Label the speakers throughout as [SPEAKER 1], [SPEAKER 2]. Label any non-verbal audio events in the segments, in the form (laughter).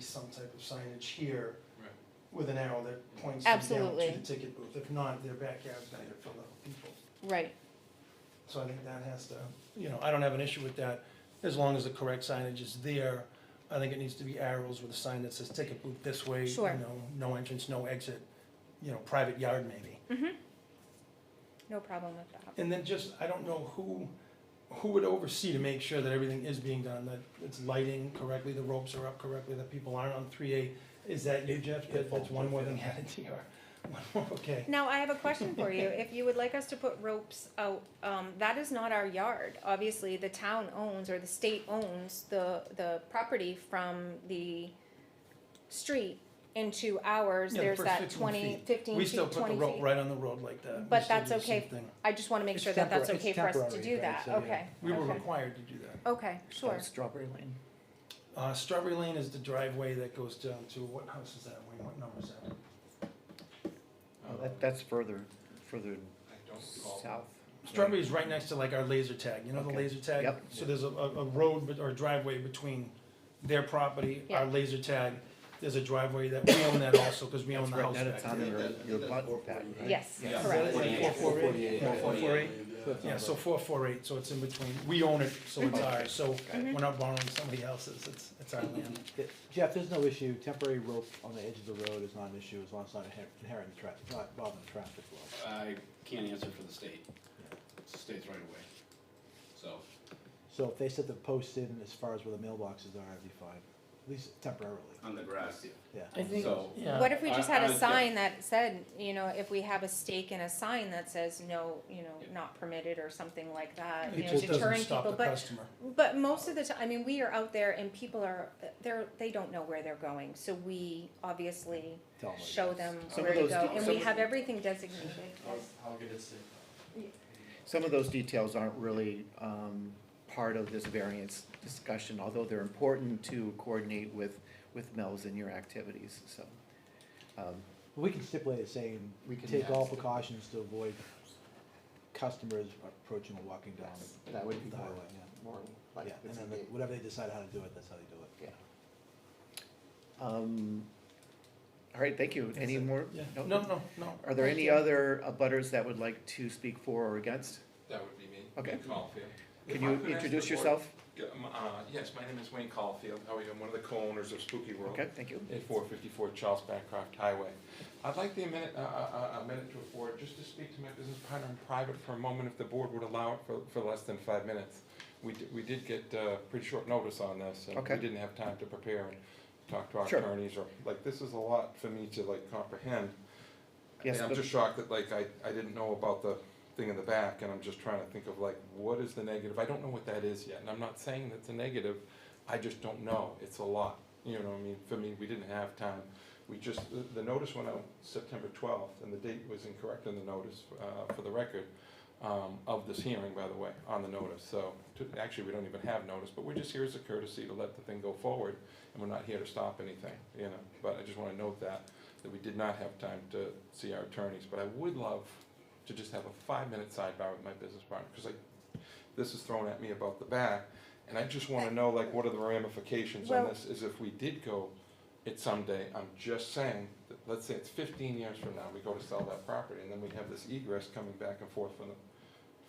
[SPEAKER 1] some type of signage here
[SPEAKER 2] Right.
[SPEAKER 1] with an arrow that points them down
[SPEAKER 3] Absolutely.
[SPEAKER 1] to the ticket booth. If not, their backyard's not gonna fill up with people.
[SPEAKER 3] right,
[SPEAKER 1] So I think that has to, you know, I don't have an issue with that, as long as the correct signage is there. I think it needs to be arrows with a sign that says ticket booth this way, you
[SPEAKER 3] Sure.
[SPEAKER 1] know, no entrance, no exit, you know, private yard maybe.
[SPEAKER 3] no problem with that.
[SPEAKER 1] And then just, I don't know who, who would oversee to make sure that everything is being done, that it's lighting correctly, the ropes are up correctly, that people aren't on three A. Is that you, Jeff? That- That's one more thing (laughs) added to your, one more, okay.
[SPEAKER 3] Now, I have a question for you. If you would like us to put ropes out, um, that is not our yard. Obviously, the town owns or the state owns the, the property from the street into ours.
[SPEAKER 1] Yeah, the
[SPEAKER 3] There's
[SPEAKER 1] first
[SPEAKER 3] that
[SPEAKER 1] 15
[SPEAKER 3] 20,
[SPEAKER 1] feet.
[SPEAKER 3] 15
[SPEAKER 1] We
[SPEAKER 3] feet,
[SPEAKER 1] still put the
[SPEAKER 3] 20
[SPEAKER 1] rope
[SPEAKER 3] feet.
[SPEAKER 1] right on the road like that. We
[SPEAKER 3] But
[SPEAKER 1] still
[SPEAKER 3] that's
[SPEAKER 1] do the same
[SPEAKER 3] okay.
[SPEAKER 1] thing.
[SPEAKER 3] I just wanna make
[SPEAKER 4] It's
[SPEAKER 3] sure that that's
[SPEAKER 4] tempora- it's
[SPEAKER 3] okay for us to
[SPEAKER 4] temporary,
[SPEAKER 3] do
[SPEAKER 4] right,
[SPEAKER 3] that.
[SPEAKER 4] so, yeah.
[SPEAKER 3] Okay,
[SPEAKER 1] We were
[SPEAKER 3] okay.
[SPEAKER 1] required to do that.
[SPEAKER 3] okay, sure.
[SPEAKER 4] Strawberry Lane.
[SPEAKER 1] Uh, Strawberry Lane is the driveway that goes down to, what house is that, Wayne, what number is that?
[SPEAKER 4] Oh, that, that's further, further
[SPEAKER 2] I don't recall.
[SPEAKER 4] south.
[SPEAKER 1] Strawberry is right next to like our laser tag, you know the
[SPEAKER 4] Okay.
[SPEAKER 1] laser tag?
[SPEAKER 4] Yep.
[SPEAKER 1] So there's a, a a road bet- or a driveway between their property, our
[SPEAKER 3] Yeah.
[SPEAKER 1] laser tag, there's a driveway that, we own that also, cause we own the
[SPEAKER 4] That's right,
[SPEAKER 1] house
[SPEAKER 4] that
[SPEAKER 1] back
[SPEAKER 4] it's
[SPEAKER 1] there.
[SPEAKER 4] on your,
[SPEAKER 2] Yeah.
[SPEAKER 4] your lot
[SPEAKER 5] Yeah.
[SPEAKER 4] pattern.
[SPEAKER 3] Yes,
[SPEAKER 2] Yeah.
[SPEAKER 1] Is
[SPEAKER 3] correct.
[SPEAKER 1] that it? like four, four, eight?
[SPEAKER 5] 448.
[SPEAKER 1] Four, four, eight?
[SPEAKER 5] Fifth
[SPEAKER 1] Yeah,
[SPEAKER 5] number.
[SPEAKER 1] so four, four, eight, so it's in between, we own it, so it's ours, so
[SPEAKER 3] Mhm.
[SPEAKER 1] we're not borrowing somebody else's, it's, it's our land.
[SPEAKER 5] Yeah, Jeff, there's no issue, temporary rope on the edge of the road is not an issue, as long as it's not inher- inherent in traffic, not bothering the traffic flow.
[SPEAKER 2] I can't answer for the state. It's the state's right away. So,
[SPEAKER 5] So if they set the post in as far as where the mailboxes are, I'd be fine, at least temporarily,
[SPEAKER 6] On the grass,
[SPEAKER 5] yeah.
[SPEAKER 1] I think,
[SPEAKER 2] So-
[SPEAKER 1] yeah.
[SPEAKER 3] What if we
[SPEAKER 2] I-
[SPEAKER 3] just had
[SPEAKER 2] I
[SPEAKER 3] a
[SPEAKER 2] was-
[SPEAKER 3] sign that said, you know, if we have a stake in a sign that says no, you know,
[SPEAKER 2] Yeah.
[SPEAKER 3] not permitted or something like that, Uh, you
[SPEAKER 1] It
[SPEAKER 3] know,
[SPEAKER 1] just doesn't
[SPEAKER 3] deterring
[SPEAKER 1] stop
[SPEAKER 3] people,
[SPEAKER 1] the
[SPEAKER 3] but,
[SPEAKER 1] customer.
[SPEAKER 3] but most of the time, I mean, we are out there and people are, they're, they don't know where they're going, so we obviously
[SPEAKER 5] Tell
[SPEAKER 2] Oh
[SPEAKER 5] them.
[SPEAKER 3] show them
[SPEAKER 4] Some
[SPEAKER 3] where
[SPEAKER 4] of
[SPEAKER 3] to
[SPEAKER 4] those
[SPEAKER 3] go,
[SPEAKER 4] do-
[SPEAKER 3] and
[SPEAKER 4] some
[SPEAKER 3] we
[SPEAKER 4] of-
[SPEAKER 3] have everything designated
[SPEAKER 2] Oh.
[SPEAKER 3] as
[SPEAKER 4] Some of those details aren't really um, part of this variance discussion, although they're important to coordinate with, with Mel's and your activities, so. um,
[SPEAKER 5] We can stipulate it saying,
[SPEAKER 4] We can,
[SPEAKER 5] take
[SPEAKER 4] yeah,
[SPEAKER 5] all
[SPEAKER 4] stipulate.
[SPEAKER 5] precautions to avoid customers approaching or walking down
[SPEAKER 4] That would
[SPEAKER 5] the
[SPEAKER 4] be more,
[SPEAKER 5] highway, yeah.
[SPEAKER 4] more like.
[SPEAKER 5] Yeah, and then the- whatever they decide how to do it, that's how they do it.
[SPEAKER 4] Yeah. Um, All right, thank you. Any more?
[SPEAKER 1] Yeah, no, no, no.
[SPEAKER 4] Are there
[SPEAKER 3] Thank
[SPEAKER 4] any
[SPEAKER 3] you.
[SPEAKER 4] other butters that would like to speak for or against?
[SPEAKER 7] That would be me.
[SPEAKER 4] Okay.
[SPEAKER 7] Wayne Caulfield.
[SPEAKER 4] Can
[SPEAKER 7] If
[SPEAKER 4] you
[SPEAKER 7] I could ask
[SPEAKER 4] introduce
[SPEAKER 7] the board-
[SPEAKER 4] yourself?
[SPEAKER 7] Yeah, um, uh, Yes, my name is Wayne Caulfield. How are you? I'm one of the co-owners of Spooky World
[SPEAKER 4] Okay, thank you.
[SPEAKER 7] at 454 Charles Bancroft Highway. I'd like the minute, uh, uh, uh, a minute to afford, just to speak to my business partner in private for a moment, if the board would allow it for, for less than five minutes. We, di- we did get uh, pretty short notice on this, and
[SPEAKER 4] Okay.
[SPEAKER 7] we didn't have time to prepare and talk to our
[SPEAKER 4] Sure.
[SPEAKER 7] attorneys, or, like, this is a lot for me to, like, comprehend.
[SPEAKER 4] Yes,
[SPEAKER 7] And I'm
[SPEAKER 4] but-
[SPEAKER 7] just shocked that, like, I, I didn't know about the thing in the back, and I'm just trying to think of, like, what is the negative? I don't know what that is yet, and I'm not saying that's a negative, I just don't know, it's a lot, you know, what I mean, for me, we didn't have time. We just, the- the notice went out September twelfth, and the date was incorrect in the notice, uh, for the record, um, of this hearing, by the way, on the notice, so, to, actually, we don't even have notice, but we're just here as a courtesy to let the thing go forward, and we're not here to stop anything, you know, but I just wanna note that, that we did not have time to see our attorneys, but I would love to just have a five-minute sidebar with my business partner, cause I, this is thrown at me about the back, and I just wanna know, like, what are the ramifications on
[SPEAKER 3] Well-
[SPEAKER 7] this, is if we did go it someday, I'm just saying, that, let's say it's fifteen years from now, we go to sell that property, and then we have this egress coming back and forth from the,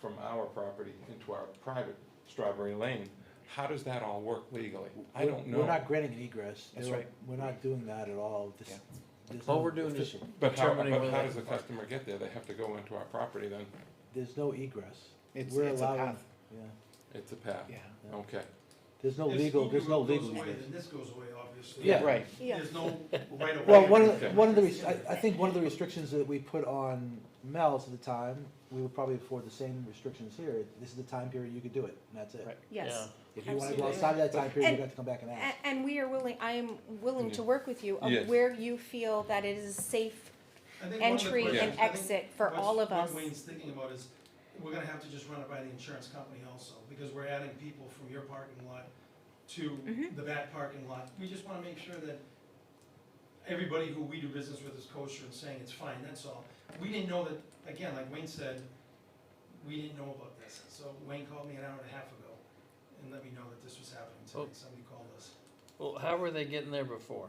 [SPEAKER 7] from our property into our private Strawberry Lane, how does that all work legally? I
[SPEAKER 5] We're-
[SPEAKER 7] don't know.
[SPEAKER 5] We're not granting an egress.
[SPEAKER 4] That's
[SPEAKER 5] There-
[SPEAKER 4] right.
[SPEAKER 5] We're not doing that at all. This-
[SPEAKER 4] Yeah.
[SPEAKER 5] there's
[SPEAKER 8] All
[SPEAKER 5] no
[SPEAKER 8] we're doing is-
[SPEAKER 5] official-
[SPEAKER 7] But how,
[SPEAKER 8] determining
[SPEAKER 7] but
[SPEAKER 8] whether
[SPEAKER 7] how
[SPEAKER 8] they
[SPEAKER 7] does the
[SPEAKER 8] can park.
[SPEAKER 7] customer get there? They have to go into our property then?
[SPEAKER 5] There's no egress.
[SPEAKER 4] It's-
[SPEAKER 5] We're
[SPEAKER 4] it's a
[SPEAKER 5] allowing-
[SPEAKER 4] path.
[SPEAKER 5] Yeah,
[SPEAKER 7] It's a path?
[SPEAKER 4] Yeah.
[SPEAKER 5] yeah.
[SPEAKER 7] Okay.
[SPEAKER 5] There's no
[SPEAKER 9] If
[SPEAKER 5] legal,
[SPEAKER 9] Spooky
[SPEAKER 5] there's no
[SPEAKER 9] Road goes
[SPEAKER 5] legal
[SPEAKER 9] away,
[SPEAKER 5] egress.
[SPEAKER 9] Then this goes away, obviously.
[SPEAKER 5] Yeah.
[SPEAKER 4] Right.
[SPEAKER 3] Yeah.
[SPEAKER 9] There's no right of way.
[SPEAKER 5] Well, one of, the-
[SPEAKER 7] Okay.
[SPEAKER 5] one of the, res- I, I think one of the restrictions that we put on Mel's at the time, we would probably afford the same restrictions here. This is the time period you could do it, and that's it.
[SPEAKER 4] Right.
[SPEAKER 3] yes.
[SPEAKER 5] If you wanna go
[SPEAKER 3] Absolutely.
[SPEAKER 5] outside of that time period, you're
[SPEAKER 3] And-
[SPEAKER 5] gonna have to come back and
[SPEAKER 3] A-
[SPEAKER 5] ask.
[SPEAKER 3] And we are willing, I am willing to
[SPEAKER 7] Yeah.
[SPEAKER 3] work with you of
[SPEAKER 7] Yes.
[SPEAKER 3] where you feel that it is safe
[SPEAKER 9] I think one of the
[SPEAKER 3] entry
[SPEAKER 9] questions-
[SPEAKER 3] and
[SPEAKER 9] I think
[SPEAKER 3] exit for
[SPEAKER 9] what's-
[SPEAKER 3] all of us.
[SPEAKER 9] What Wayne's thinking about is, we're gonna have to just run it by the insurance company also, because we're adding people from your parking lot to
[SPEAKER 3] Mhm.
[SPEAKER 9] the back parking lot. We just wanna make sure that everybody who we do business with is kosher and saying it's fine, that's all. We didn't know that, again, like Wayne said, we didn't know about this. So Wayne called me an hour and a half ago and let me know that this was happening
[SPEAKER 8] Oh.
[SPEAKER 9] today, somebody called us.
[SPEAKER 6] Well, how were they getting there before?